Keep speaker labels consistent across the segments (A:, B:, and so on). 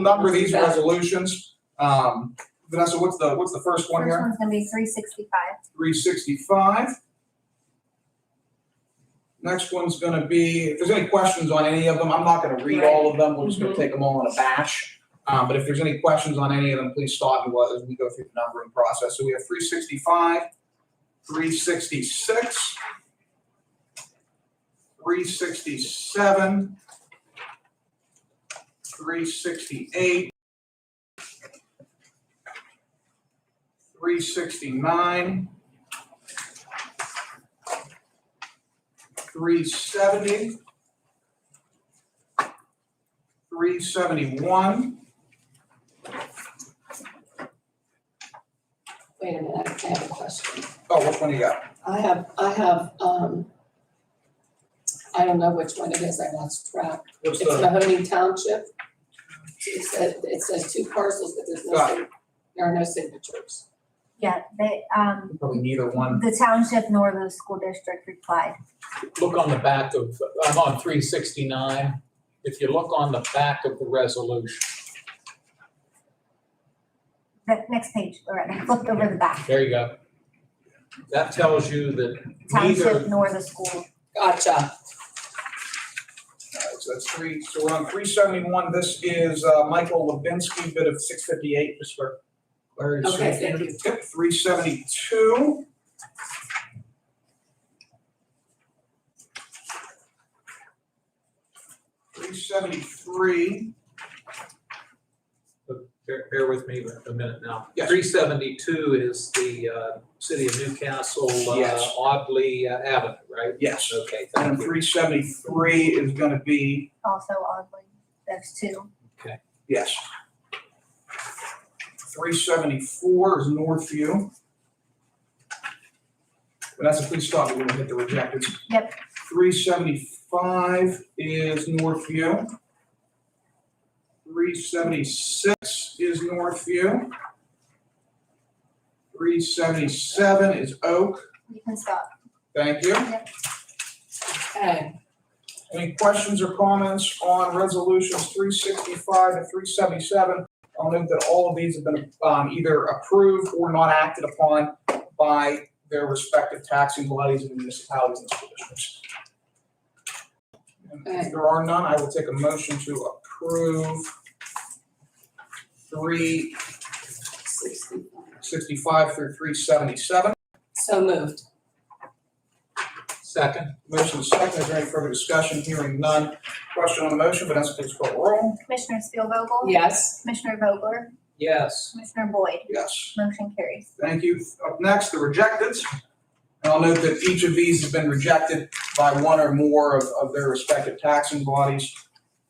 A: number these resolutions. Um, Vanessa, what's the, what's the first one
B: First
A: here?
B: one's gonna be three sixty-five.
A: Three sixty-five. Next one's gonna be, if there's any questions on any of them, I'm not gonna read all of them, we're just gonna take them all in a batch. Um, but if there's any questions on any of them, please stop and let- as we go through the numbering process. So we have three sixty-five, three sixty-six, three sixty-seven, three sixty-eight, 369, 370, 371,
C: Wait a minute, I have a question.
A: oh, which one do you got?
C: I have, I have, um, I don't know which one it is, I lost track.
A: What's
C: It's
A: the,
C: Mahoney Township. It says, it says two parcels, but there's no,
A: Got
C: sig- there are no signatures.
B: Yeah, they, um,
A: probably neither one.
B: the township nor the school district replied.
D: look on the back of, I'm on three sixty-nine. If you look on the back of the resolution,
B: The next page, Loretta, flip over the back.
D: there you go. That tells you that
B: Township
D: neither,
B: nor the school.
C: Gotcha.
A: All right, So that's three, so we're on 371, this is uh, Michael Levinsky, bid of 658, just for Larry's.
C: Okay, thank you.
A: Yep, 372. 373.
D: bear, bear with me a minute now.
A: Yes.
D: Three seventy-two is the, uh, city of Newcastle, uh,
A: Yes.
D: Audley uh, Avenue, right?
A: Yes.
D: Okay,
A: And
D: thank you.
A: three seventy-three is gonna be,
B: Also oddly, those two.
A: yes. Three seventy-four is Northview. Vanessa, please stop, we're gonna hit the rejected.
B: Yep.
A: Three seventy-five is Northview. Three seventy-six is Northview. Three seventy-seven is Oak,
B: You can stop.
A: thank you.
C: Okay,
A: Any questions or comments on resolutions three sixty-five to three seventy-seven? I'll note that all of these have been um, either approved or not acted upon by their respective taxing bodies and municipalities and school districts. And If there are none, I will take a motion to approve three
C: sixty-five.
A: sixty-five through three seventy-seven.
C: So moved.
D: Second,
A: Motion is second. Is there any further discussion? Hearing none. Question on the motion, Vanessa, please call the roll.
B: Commissioner Spielvogel?
C: Yes,
B: Commissioner Vogler?
D: yes,
B: Commissioner Boyd?
A: Yes.
B: Motion carries.
A: Thank you. Up next, the rejecteds. And I'll note that each of these has been rejected by one or more of, of their respective taxing bodies.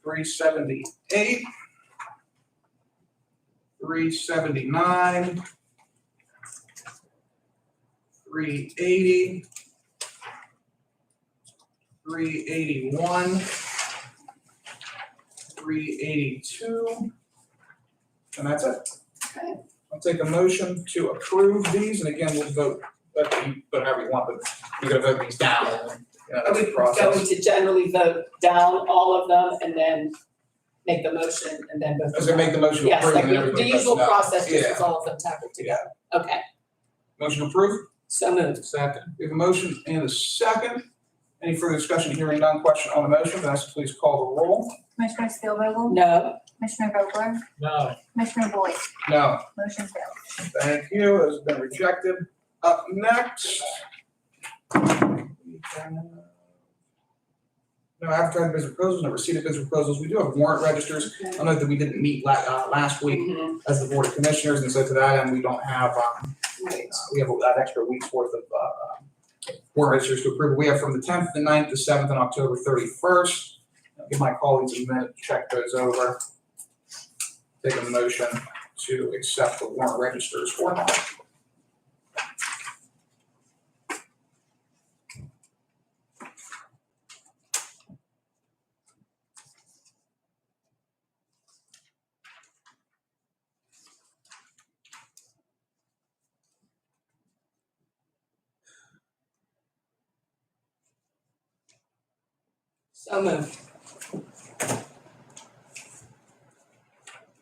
A: Three seventy-eight. Three seventy-nine. Three eighty. Three eighty-one. Three eighty-two. And that's it.
C: okay,
A: I'll take a motion to approve these, and again, we'll vote, but you, but however you want, but you're gonna vote these down, and, you know, that's
C: we
A: the
C: going
A: process.
C: to generally vote down all of them and then make the motion and then vote.
A: I was gonna make the motion to
C: Yes,
A: approve,
C: like
A: and
C: the- the
A: everybody votes
C: usual
A: no.
C: process, just
A: Yeah.
C: as all of them tackled together. Okay,
A: Motion approved,
C: so moved.
D: second,
A: we have a motion and a second. Any further discussion, hearing none, question on the motion, Vanessa, please call the roll.
B: Commissioner Spielvogel?
C: No,
B: Commissioner Vogler?
D: no,
B: Commissioner Boyd?
A: No,
B: Motion fails.
A: thank you, it has been rejected. Up next. No, advertising bids and proposals, no receipt of bids and proposals, we do have warrant registers,
C: Okay.
A: I know that we didn't meet la- uh, last week,
C: Mhm.
A: as the Board of Commissioners, and so to that end, we don't have, um,
C: Right.
A: uh, we have that extra week's worth of, uh, warrant registers to approve. We have from the tenth, the 9th, the seventh, and October thirty-first. Give my colleagues a minute to check those over. Take a motion to accept the warrant registers or not.
C: So moved.